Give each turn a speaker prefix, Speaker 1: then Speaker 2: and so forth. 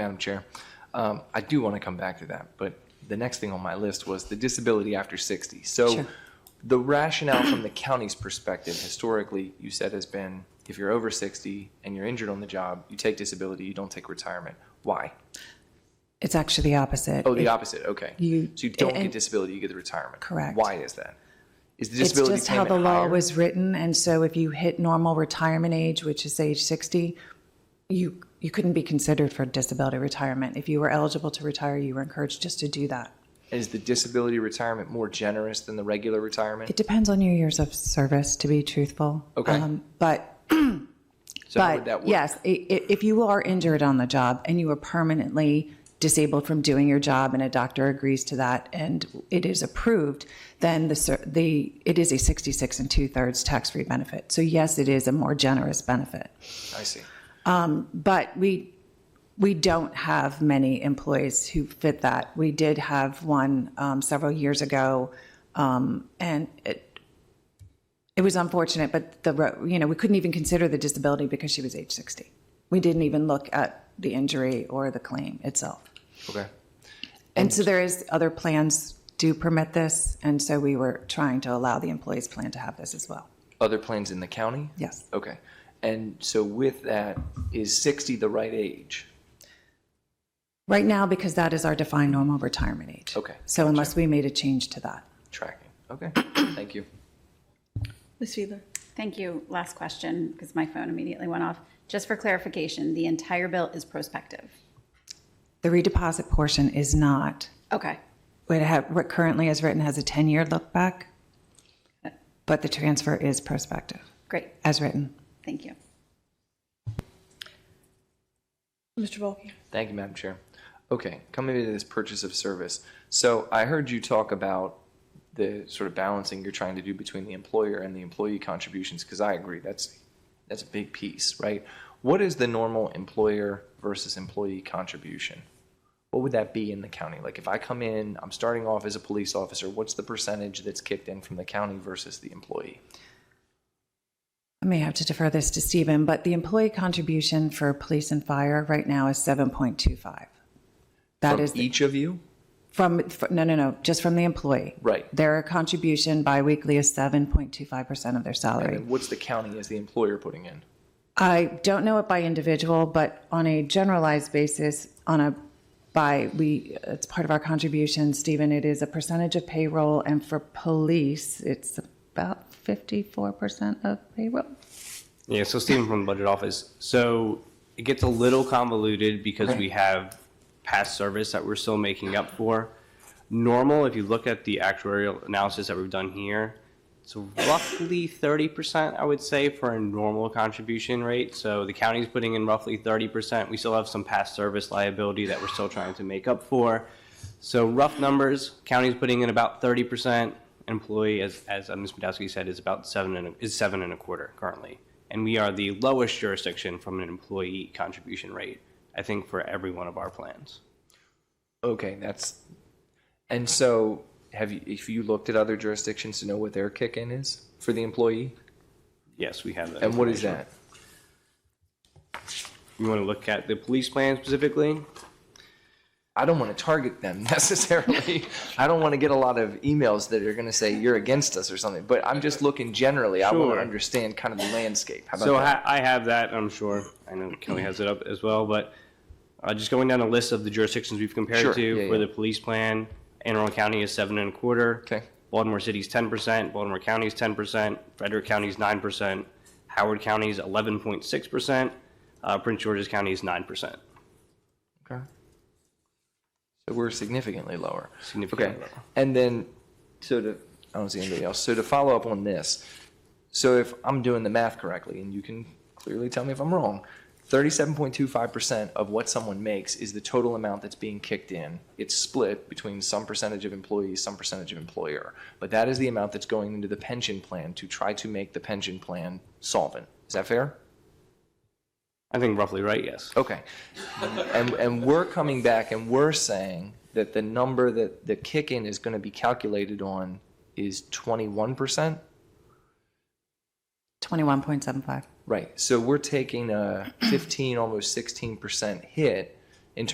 Speaker 1: Madam Chair, um, I do want to come back to that, but the next thing on my list was the disability after 60. So
Speaker 2: Sure.
Speaker 1: the rationale from the county's perspective, historically, you said has been, if you're over 60 and you're injured on the job, you take disability, you don't take retirement. Why?
Speaker 2: It's actually the opposite.
Speaker 1: Oh, the opposite, okay.
Speaker 2: You-
Speaker 1: So you don't get
Speaker 2: and-
Speaker 1: disability, you get the retirement.
Speaker 2: Correct.
Speaker 1: Why is that? Is the
Speaker 2: It's
Speaker 1: disability
Speaker 2: just how the
Speaker 1: payment
Speaker 2: law
Speaker 1: higher?
Speaker 2: was written, and so if you hit normal retirement age, which is age 60, you, you couldn't be considered for disability retirement. If you were eligible to retire, you were encouraged just to do that.
Speaker 1: Is the disability retirement more generous than the regular retirement?
Speaker 2: It depends on your years of service, to be truthful.
Speaker 1: Okay.
Speaker 2: Um, But
Speaker 1: So how would that
Speaker 2: But
Speaker 1: work?
Speaker 2: yes, i- i- if you are injured on the job and you are permanently disabled from doing your job and a doctor agrees to that and it is approved, then the, cer- the, it is a 66 and two-thirds tax-free benefit. So yes, it is a more generous benefit.
Speaker 1: I see.
Speaker 2: But we, we don't have many employees who fit that. We did have one um, several years ago, um, and it, it was unfortunate, but the, ro- you know, we couldn't even consider the disability because she was age 60. We didn't even look at the injury or the claim itself.
Speaker 1: Okay.
Speaker 2: And so there is, other plans do permit this, and so we were trying to allow the employees' plan to have this as well.
Speaker 1: Other plans in the county?
Speaker 2: Yes.
Speaker 1: Okay. And so with that, is 60 the right age?
Speaker 2: Right now, because that is our defined normal retirement age.
Speaker 1: Okay,
Speaker 2: So unless we made a change to that.
Speaker 1: Tracking. Okay. Thank you.
Speaker 3: Ms. Fiedler?
Speaker 4: Thank you. Last question, because my phone immediately went off. Just for clarification, the entire bill is prospective.
Speaker 2: The redeposit portion is not.
Speaker 4: Okay.
Speaker 2: What ha- what currently is written has a 10-year look back, but the transfer is prospective,
Speaker 4: Great.
Speaker 2: as written.
Speaker 4: Thank you.
Speaker 3: Mr. Balky?
Speaker 1: Thank you, Madam Chair. Okay, coming into this purchase of service. So I heard you talk about the sort of balancing you're trying to do between the employer and the employee contributions, because I agree, that's, that's a big piece, right? What is the normal employer versus employee contribution? What would that be in the county? Like if I come in, I'm starting off as a police officer, what's the percentage that's kicked in from the county versus the employee?
Speaker 2: I may have to defer this to Stephen, but the employee contribution for police and fire right now is 7.25. That
Speaker 1: From e
Speaker 2: is, the-
Speaker 1: each of you?
Speaker 2: from, fr- no, no, no, just from the employee.
Speaker 1: Right.
Speaker 2: Their contribution biweekly is 7.25% of their salary.
Speaker 1: And then what's the county as the employer putting in?
Speaker 2: I don't know it by individual, but on a generalized basis, on a by we, it's part of our contribution, Stephen. It is a percentage of payroll, and for police, it's about fifty-four percent of payroll.
Speaker 5: Yeah, so Stephen from the budget office. So it gets a little convoluted because we have past service that we're still making up for. Normal, if you look at the actuarial analysis that we've done here, it's roughly thirty percent, I would say, for a normal contribution rate. So the county's putting in roughly thirty percent. We still have some past service liability that we're still trying to make up for. So rough numbers, county's putting in about thirty percent. Employee, as, as uh, Ms. Podolsky said, is about seven and, a- is seven and a quarter currently. And we are the lowest jurisdiction from an employee contribution rate, I think, for every one of our plans.
Speaker 1: Okay, that's, and so have you, if you looked at other jurisdictions to know what their kick-in is for the employee?
Speaker 5: Yes, we have that.
Speaker 1: And what is
Speaker 5: information.
Speaker 1: that?
Speaker 5: You want to look at the police plan specifically?
Speaker 1: I don't want to target them necessarily. I don't want to get a lot of emails that are going to say you're against us or something, but I'm just looking generally. I want
Speaker 5: Sure.
Speaker 1: to understand kind of the landscape. How
Speaker 5: So
Speaker 1: about that?
Speaker 5: ha- I have that, I'm sure. I know Kelly has it up as well, but uh, just going down a list of the jurisdictions we've
Speaker 1: Sure,
Speaker 5: compared
Speaker 1: yeah,
Speaker 5: to for
Speaker 1: yeah.
Speaker 5: the police plan, Anne Arundel County is seven and a quarter.
Speaker 1: Okay.
Speaker 5: Baltimore City's ten percent, Baltimore County's ten percent, Frederick County's nine percent, Howard County's eleven point six percent, uh, Prince George's County is nine percent.
Speaker 1: Okay. So we're significantly lower.
Speaker 5: Significantly
Speaker 1: Okay.
Speaker 5: lower.
Speaker 1: And then, so to, I don't see anybody else. So to follow up on this, so if I'm doing the math correctly, and you can clearly tell me if I'm wrong, thirty-seven point two five percent of what someone makes is the total amount that's being kicked in. It's split between some percentage of employees, some percentage of employer. But that is the amount that's going into the pension plan to try to make the pension plan solvent. Is that fair?
Speaker 5: I think roughly right, yes.
Speaker 1: Okay. And, and we're coming back and we're saying that the number that the kick-in is going to be calculated on is 21%?
Speaker 2: Twenty-one point seven five.
Speaker 1: Right. So we're taking a 15, almost 16% hit